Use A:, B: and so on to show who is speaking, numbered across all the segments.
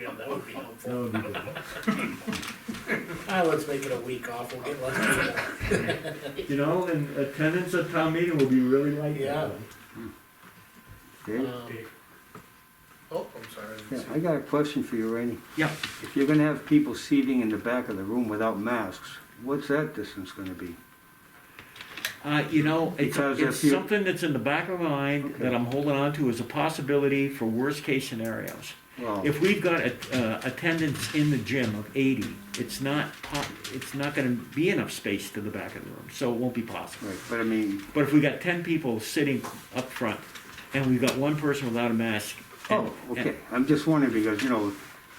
A: yeah, that would be helpful.
B: That would be good.
A: Ah, let's make it a week off, we'll get lucky.
B: You know, and attendance at town meeting will be really light.
A: Yeah.
C: Okay.
A: Um, Oh, I'm sorry. I
C: Yeah,
A: didn't
C: I
A: see-
C: got a question for you, Rainey.
B: Yeah.
C: If you're gonna have people seating in the back of the room without masks, what's that distance gonna be?
D: Uh, you know, it's,
C: Because if
D: it's
C: you-
D: something that's in the back of my mind that I'm holding on to as a possibility for worst case scenarios.
C: Well,
D: If we've got a, uh, attendance in the gym of eighty, it's not po- it's not gonna be enough space to the back of the room, so it won't be possible.
C: right, but I mean,
D: But if we got ten people sitting up front and we've got one person without a mask. and-
C: oh, okay, I'm just wondering because, you know,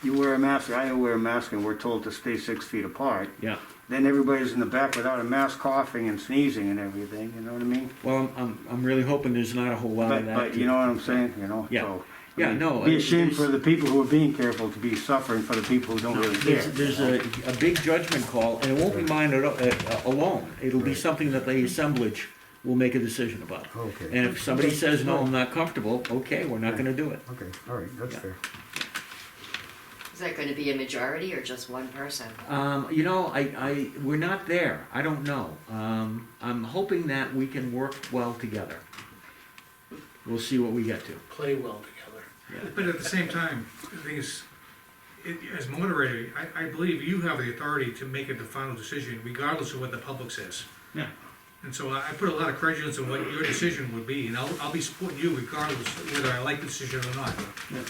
C: you wear a mask, I wear a mask and we're told to stay six feet apart.
D: Yeah,
C: Then everybody's in the back without a mask coughing and sneezing and everything, you know what I mean?
D: well, I'm, I'm, I'm really hoping there's not a whole lot
C: But,
D: of that.
C: but you know what I'm saying, you know,
D: Yeah.
C: so. I
D: Yeah,
C: mean,
D: no, I-
C: Be a shame for
D: there's-
C: the people who are being careful to be suffering for the people who don't really care.
D: There's, there's a, a big judgment call, and it won't be mine at- uh, alone. It'll be something that the assemblage will make a decision about.
C: Okay.
D: And if somebody says, no, I'm not comfortable, okay, we're not gonna do it.
C: Okay, all right, that's
D: Yeah.
C: fair.
E: Is that gonna be a majority or just one person?
D: Um, you know, I, I, we're not there. I don't know. Um, I'm hoping that we can work well together. We'll see what we get to.
A: Play well together.
F: But at the same time, the thing is, it, as moderator, I, I believe you have the authority to make it the final decision regardless of what the public says.
D: Yeah.
F: And so I, I put a lot of credence in what your decision would be, and I'll, I'll be supporting you regardless of whether I like the decision or not.
D: Well,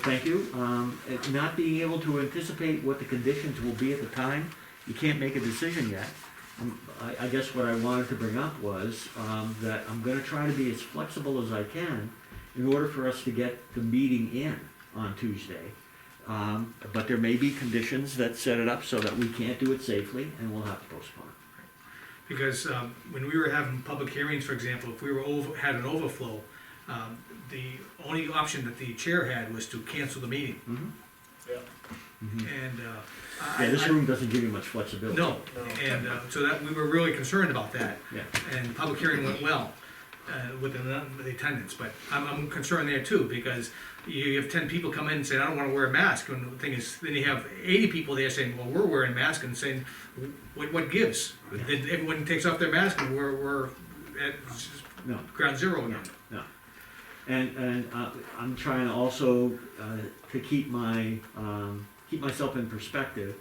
D: thank you. Um, it- not being able to anticipate what the conditions will be at the time, you can't make a decision yet. Um, I, I guess what I wanted to bring up was, um, that I'm gonna try to be as flexible as I can in order for us to get the meeting in on Tuesday. Um, but there may be conditions that set it up so that we can't do it safely and we'll have to postpone it.
F: Because, um, when we were having public hearings, for example, if we were over, had an overflow, um, the only option that the chair had was to cancel the meeting.
A: Yeah.
F: And, uh, I.
D: Yeah, this
F: I-
D: room doesn't give you much flexibility.
F: No,
A: No.
F: and, uh, so that, we were really concerned about that.
D: Yeah.
F: and the public hearing went well uh, with the with the attendance, but I'm, I'm concerned there too, because you have ten people come in and say, I don't wanna wear a mask, and the thing is, then you have eighty people there saying, well, we're wearing masks, and saying, what, what gives? Then everyone takes off their mask and we're, we're at
D: No.
F: ground zero again.
D: No. And, and uh, I'm trying also uh, to keep my, um, keep myself in perspective.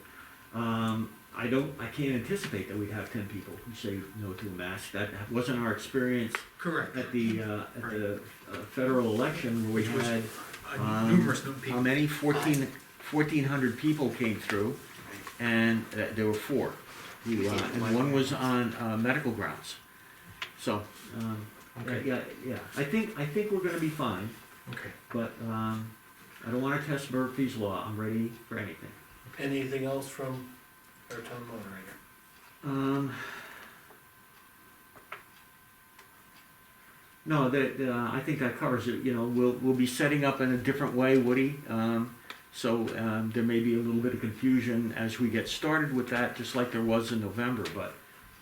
D: Um, I don't, I can't anticipate that we'd have ten people who say no to a mask. That wasn't our experience
F: Correct,
D: at the, uh, at the uh, federal election where we
F: Which was-
D: had,
F: Uh, numerous num-
D: how
F: people,
D: many? Fourteen, fourteen hundred people came through and uh, there were four. who, uh, And one was on uh, medical grounds. So, um, yeah,
F: okay,
D: yeah, yeah. I think, I think we're gonna be fine.
F: okay.
D: But um, I don't want to test Murphy's Law. I'm ready for anything.
A: Anything else from our town moderator?
D: Um, no, that uh, I think that covers it. You know, we'll we'll be setting up in a different way, Woody. Um, so um, there may be a little bit of confusion as we get started with that, just like there was in November. But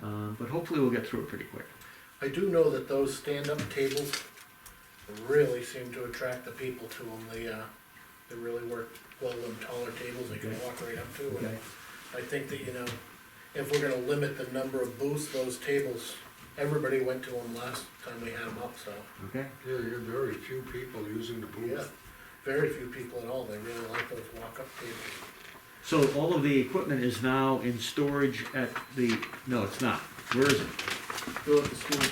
D: um, but hopefully we'll get through it pretty quick.
A: I do know that those stand-up tables really seem to attract the people to them, they, uh, they really work well, them taller tables they can
D: Okay.
A: walk right up to. and
D: Okay.
A: I think that, you know, if we're gonna limit the number of booths, those tables, everybody went to them last time we had them up, so.
D: Okay.
G: Yeah, you have very few people using the
A: Yeah,
G: booth.
A: very few people at all, they really like those walk-up tables.
D: So all of the equipment is now in storage at the. No, it's not. Where is it?
E: Go at the school.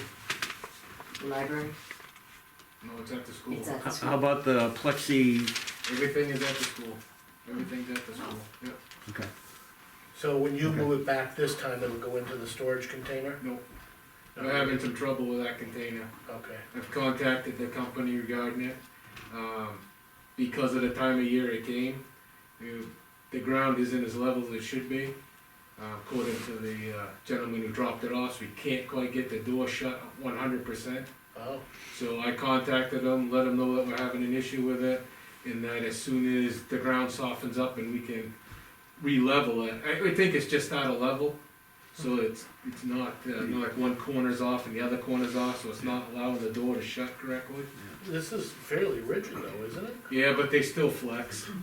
E: Library?
G: No, it's at the school.
E: It's at the
D: How-
E: school.
D: How about the plexi?
G: Everything is at the school. Everything's at the school, yeah.
D: Okay.
A: So when you
D: Okay.
A: move it back this time, it'll go into the storage container?
G: No. I'm
A: Okay.
G: having some trouble with that container.
A: Okay,
G: I've contacted the company regarding it. Um, because of the time of year it came, you- the ground isn't as level as it should be. Uh, according to the uh, gentleman who dropped it off, so we can't quite get the door shut one hundred percent.
A: oh,
G: So I contacted them, let them know that we're having an issue with it, and that as soon as the ground softens up and we can re-level it, I, I think it's just out of level. So it's, it's not, uh, not like one corner's off and the other corner's off, so it's not allowing the door to shut correctly.
A: this is fairly rigid though, isn't it?
G: Yeah, but they still flex.